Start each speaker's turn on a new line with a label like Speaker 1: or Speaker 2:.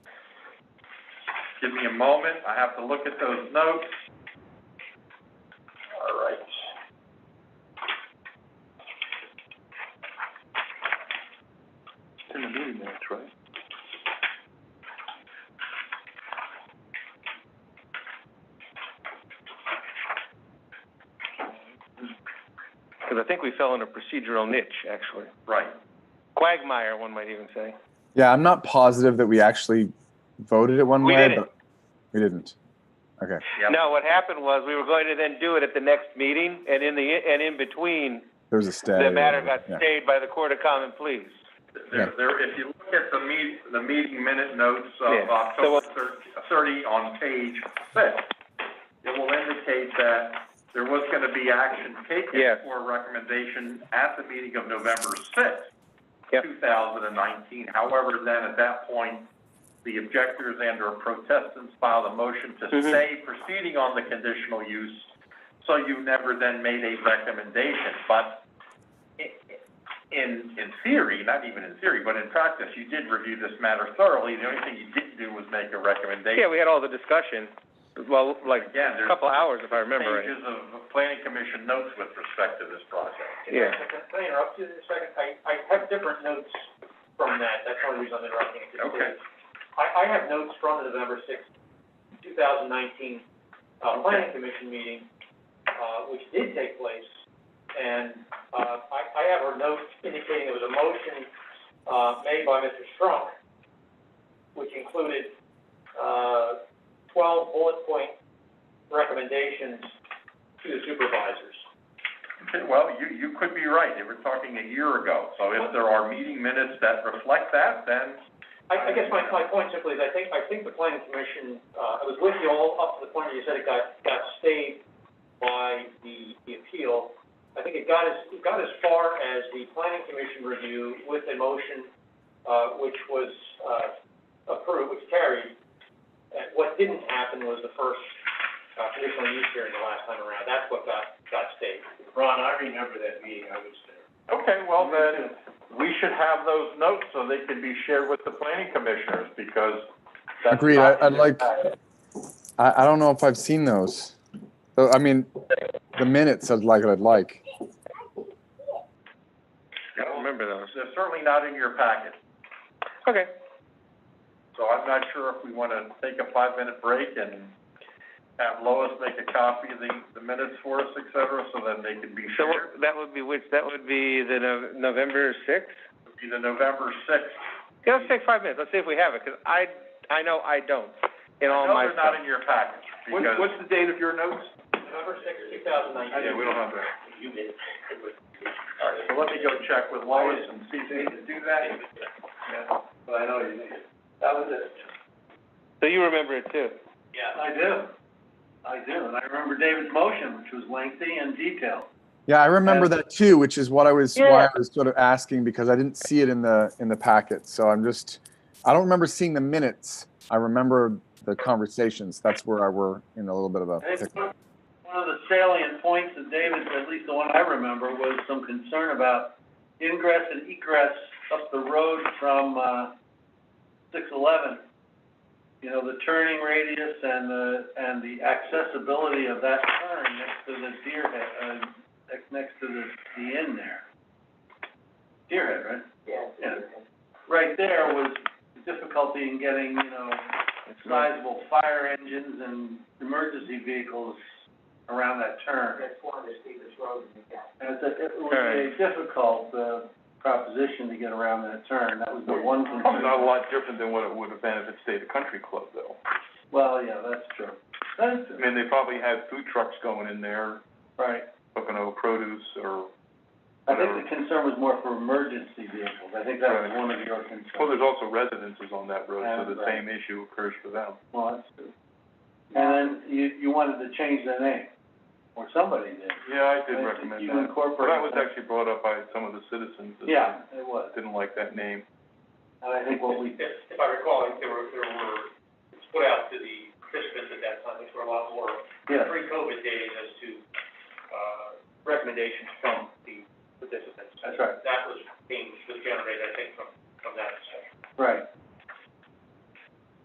Speaker 1: Give me a moment, I have to look at those notes. All right.
Speaker 2: It's in the meeting minutes, right? Because I think we fell in a procedural niche, actually.
Speaker 1: Right.
Speaker 2: Quagmire, one might even say.
Speaker 3: Yeah, I'm not positive that we actually voted it one
Speaker 2: We
Speaker 3: way,
Speaker 2: didn't.
Speaker 3: but we didn't. Okay.
Speaker 1: Yep.
Speaker 2: No, what happened was, we were going to then do it at the next meeting, and in the, and in between,
Speaker 3: There was a stay.
Speaker 2: the matter got
Speaker 3: Yeah.
Speaker 2: stayed by the Court of Common Pleas.
Speaker 1: There, there, if you look at the meet, the meeting minute notes
Speaker 2: Yeah.
Speaker 1: of
Speaker 2: So
Speaker 1: October
Speaker 2: what-
Speaker 1: thir- thirty on page six, it will indicate that there was gonna be action
Speaker 2: Yeah.
Speaker 1: taken for recommendation at the meeting of November sixth,
Speaker 2: Yep.
Speaker 1: two thousand and nineteen. However, then at that point, the objectors and or protestants filed a motion to
Speaker 2: Mhm.
Speaker 1: stay proceeding on the conditional use, so you never then made a recommendation. But i- in, in theory, not even in theory, but in practice, you did review this matter thoroughly. The only thing you didn't do was make a
Speaker 2: Yeah,
Speaker 1: recommendation.
Speaker 2: we had all the discussion, well, like,
Speaker 1: Again,
Speaker 2: a
Speaker 1: there's
Speaker 2: couple hours, if I remember right.
Speaker 1: pages of planning commission notes with respect to this project.
Speaker 2: Yeah.
Speaker 4: Can I interrupt you a second? I, I have different notes from that, that's the only reason I'm interrupting it.
Speaker 1: Okay.
Speaker 4: I, I have notes from the November sixth, two thousand nineteen, uh, planning commission meeting, uh, which did take place. And, uh, I, I have a note indicating there was a motion, uh, made by Mr. Strunk, which included, uh, twelve bullet point recommendations to the supervisors.
Speaker 1: Okay, well, you, you could be right. They were talking a year ago. So if there are meeting minutes that reflect that, then
Speaker 4: I, I guess my, my point simply is, I think, I think the planning commission, uh, I was with you all up to the point where you said it got, got stayed by the, the appeal. I think it got as, it got as far as the planning commission review with a motion, uh, which was, uh, approved, which carried. And what didn't happen was the first, uh, conditional use hearing the last time around, that's what got, got stayed. Ron, I remember that meeting, I was there.
Speaker 1: Okay, well then, we should have those notes so they can be shared with the planning commissioners because that's.
Speaker 3: Agreed. I-
Speaker 1: not-
Speaker 3: I'd like- I, I don't know if I've seen those. So, I mean, the minutes I'd like, I'd like.
Speaker 2: I don't remember those.
Speaker 1: They're certainly not in your packet,
Speaker 2: Okay.
Speaker 1: so I'm not sure if we want to take a five-minute break and have Lois make a copy of the, the minutes for us, et cetera, so then they can be
Speaker 2: So
Speaker 1: shared.
Speaker 2: what- that would be which, that would be the Nov- November sixth?
Speaker 1: It'd be the November sixth.
Speaker 2: Yeah, let's take five minutes, let's see if we have it, 'cause I, I know I don't, in all my
Speaker 1: No, they're not
Speaker 2: stuff.
Speaker 1: in your packet because.
Speaker 2: the date of your notes?
Speaker 4: November sixth, two thousand nineteen.
Speaker 1: Yeah, we don't have that. All right, so let me go check with Lois and see if they can do that.
Speaker 4: But I know you mean. That was it.
Speaker 2: So you remember it too?
Speaker 4: Yeah, I do. I do, and I remember David's motion, which was lengthy and detailed.
Speaker 3: Yeah, I remember
Speaker 2: And-
Speaker 3: that too, which is what I was, why
Speaker 2: Yeah.
Speaker 3: I was sort of asking because I didn't see it in the, in the packet. So I'm just, I don't remember seeing the minutes. I remember the conversations. That's where I were in a little bit of a.
Speaker 4: I think one one of the salient points of David's, at least the one I remember, was some concern about ingress and egress up the road from, uh, six eleven. You know, the turning radius and the, and the accessibility of that turn next to the deer head, uh, next- next to the, the inn there. Deer head, right? Yeah. Right there was difficulty in getting, you know, sizable fire engines and emergency vehicles around that turn. That's one of the steepest roads in the county. And it's a, it was a difficult, uh, proposition to get around that turn, that was the one concern.
Speaker 5: Not a lot different than what it would have been if it stayed a country club, though.
Speaker 4: Well, yeah, that's true, that's
Speaker 5: I
Speaker 4: true,
Speaker 5: mean, they probably had food trucks going in there,
Speaker 4: right.
Speaker 5: looking over produce or,
Speaker 4: I think the concern was more for emergency vehicles, I think that was
Speaker 5: Right.
Speaker 4: one of your
Speaker 5: well,
Speaker 4: concerns.
Speaker 5: there's also residences on that road, so the
Speaker 4: Yeah, right.
Speaker 5: same issue occurs for them.
Speaker 4: Well, that's true. And then you, you wanted to change the name, or somebody did.
Speaker 5: Yeah, I
Speaker 4: Uh,
Speaker 5: did recommend
Speaker 4: You
Speaker 5: that. Well,
Speaker 4: incorporate.
Speaker 5: that was actually brought up by some of the citizens that
Speaker 4: Yeah, it was,
Speaker 5: didn't like that name.
Speaker 4: and I think what we,
Speaker 6: If, if I recall, like, there were, there were, it's put out to the participants at that time, which were a lot more
Speaker 4: yeah.
Speaker 6: pre-COVID days as to, uh, recommendations from the participants.
Speaker 4: That's right.
Speaker 6: That was being, was generated, I think, from, from that discussion.
Speaker 4: Right,